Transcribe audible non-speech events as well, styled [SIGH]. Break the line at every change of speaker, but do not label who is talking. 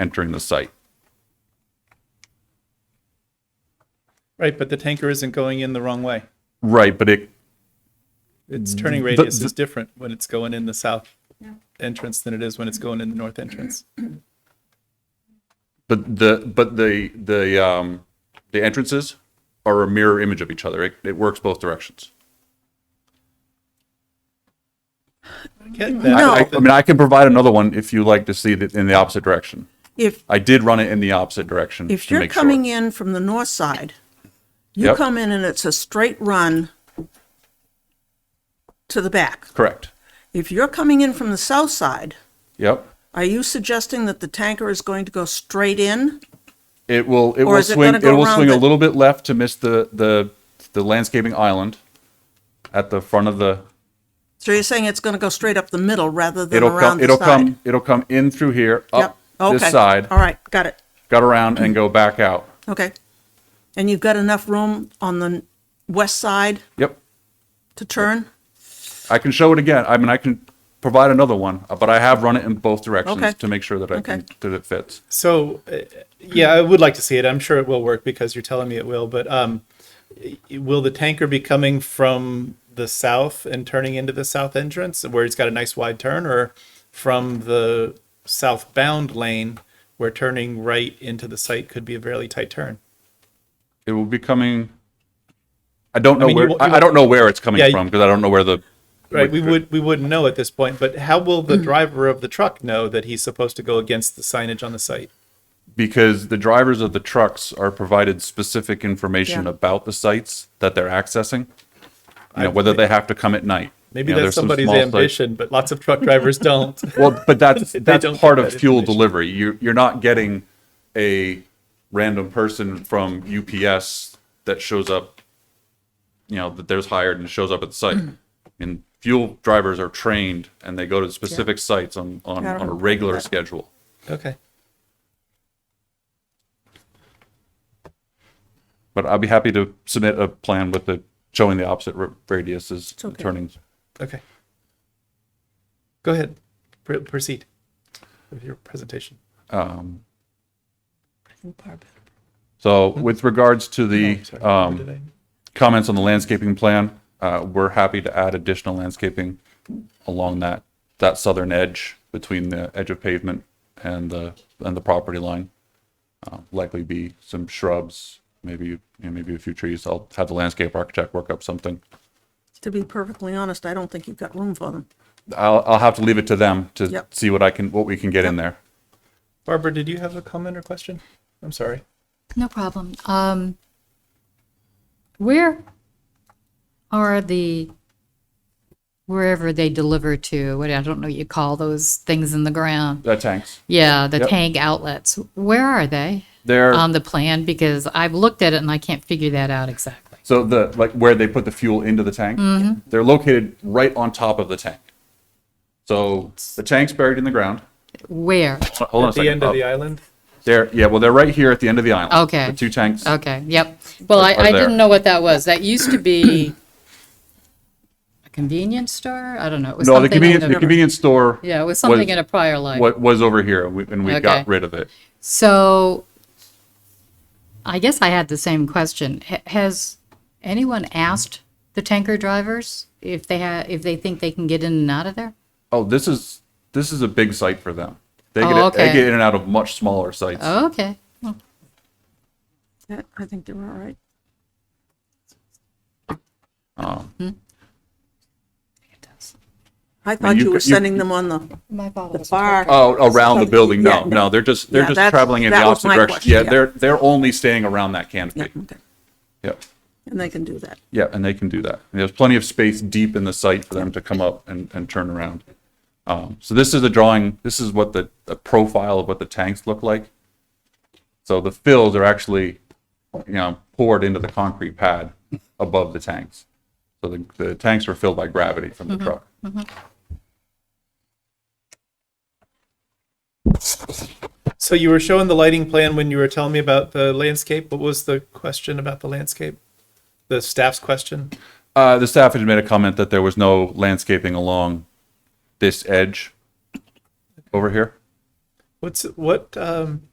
entering the site.
Right, but the tanker isn't going in the wrong way.
Right, but it
Its turning radius is different when it's going in the south entrance than it is when it's going in the north entrance.
But the but the the um the entrances are a mirror image of each other. It, it works both directions.
Get
I-
that.
I, I mean, I can provide another one if you like to see it in the opposite direction.
If,
I did run it in the opposite direction.
if
Mm, to
you're
make sure.
coming in from the north side, you
Yep.
come in and it's a straight run to the back.
correct.
If you're coming in from the south side,
Yep.
are you suggesting that the tanker is going to go straight in?
It will it
Or
will
is it
swing
gonna
it,
go
will
around
swing a
the-
little bit left to miss the the the landscaping island at the front of the
So you're saying it's going to go straight up the middle rather than
it'll
around
come
the
it'll
side?
come it'll come in through here up
Yep.
this
Okay.
side
All right, got it.
got around and go back out.
Okay. And you've got enough room on the west side
Yep.
to turn?
I can show it again. I mean, I can provide another one, uh, but I have run it in both directions
Okay.
to make sure that I can,
Okay.
that it fits.
So, uh, yeah, I would like to see it. I'm sure it will work because you're telling me it will, but um, y- will the tanker be coming from the south and turning into the south entrance where it's got a nice wide turn or from the southbound lane where turning right into the site could be a fairly tight turn?
It will be coming. I don't know
mean, you
where.
won't- you
I, I don't know where it's coming
Yeah, you-
from because I don't know where the.
Right, we would we wouldn't know at this point, but how will the driver of the truck know that he's supposed to go against the signage on the site?
because the drivers of the trucks are provided specific information
Yeah.
about the sites that they're accessing. You
I-
know, whether they have to come at night.
Maybe
You know,
that's
there's some
somebody's
small sites-
ambition, but lots of truck drivers [LAUGHS] don't.
Well, but that's
[LAUGHS] They
that's
don't
part
get
of
that
fuel
information.
delivery. You you're not getting a random person from UPS that shows up. You know that there's hired and shows up at the site.
Mm-hmm.
and fuel drivers are trained and they go to specific sites on on,
Yeah, I don't
on a
know.
regular schedule.
Okay.
But I'll be happy to submit a plan with the showing the opposite ra- radiuses and
okay.
turning.
Okay. Go ahead. Pr- proceed with your presentation.
Um, so with regards to the
Sorry,
um,
did I-
comments on the landscaping plan. Uh, we're happy to add additional landscaping along that, that southern edge between the edge of pavement and the, and the property line. Uh, Likely be some shrubs, maybe, you know, maybe a few trees. I'll have the landscape architect work up something.
To be perfectly honest, I don't think you've got room for them.
I'll, I'll have to leave it to them to
Yep.
see what I can, what we can get in there.
Barbara, did you have a comment or question? I'm sorry.
No problem. Um, where are the, wherever they deliver to, what, I don't know what you call those things in the ground.
Uh, tanks.
Yeah, the
Yep.
tank outlets. Where are they
They're,
on the plan? Because I've looked at it and I can't figure that out exactly.
so the, like where they put the fuel into the tank,
Mm-hmm.
they're located right on top of the tank. So the tank's buried in the ground.
Where?
Hold on a
At the
second.
end of the
Oh,
island?
They're, yeah, well, they're right here at the end of the island.
Okay.
The two tanks.
Okay, yep. Well, I,
Are
I
there.
didn't know what that was. That used to be a convenience store? I don't know. It was
No, the
something in
convenience, the convenience store.
Yeah, it was something in a prior life.
What was over here and we, and we got
Okay.
rid of it.
So I guess I had the same question. H- Has anyone asked the tanker drivers if they ha if they think they can get in and out of there?
Oh, this is, this is a big site for them. They
Oh,
get, they
okay.
get in and out of much smaller sites.
Oh, okay. Well,
Yeah, I think they were all right.
it does.
I thought
you
you were
could- you-
sending them on the,
My fault.
the bar.
Oh, around the building? No,
Yeah.
no, they're just, they're
Yeah,
just
that's-
traveling in the
that was
opposite
my
direction.
question,
Yeah,
yeah.
they're, they're only staying around that canopy.
Yeah, okay.
Yep.
And they can do that.
Yeah, and they can do that. And there's plenty of space deep in the site for them to come up and, and turn around. Um, so this is the drawing. This is what the, the profile of what the tanks look like. So the fills are actually, you know, poured into the concrete pad above the tanks. So the, the tanks were filled by gravity from the truck.
So you were showing the lighting plan when you were telling me about the landscape. What was the question about the landscape? The staff's question?
Uh, the staff had made a comment that there was no landscaping along this edge over here.
What's what um,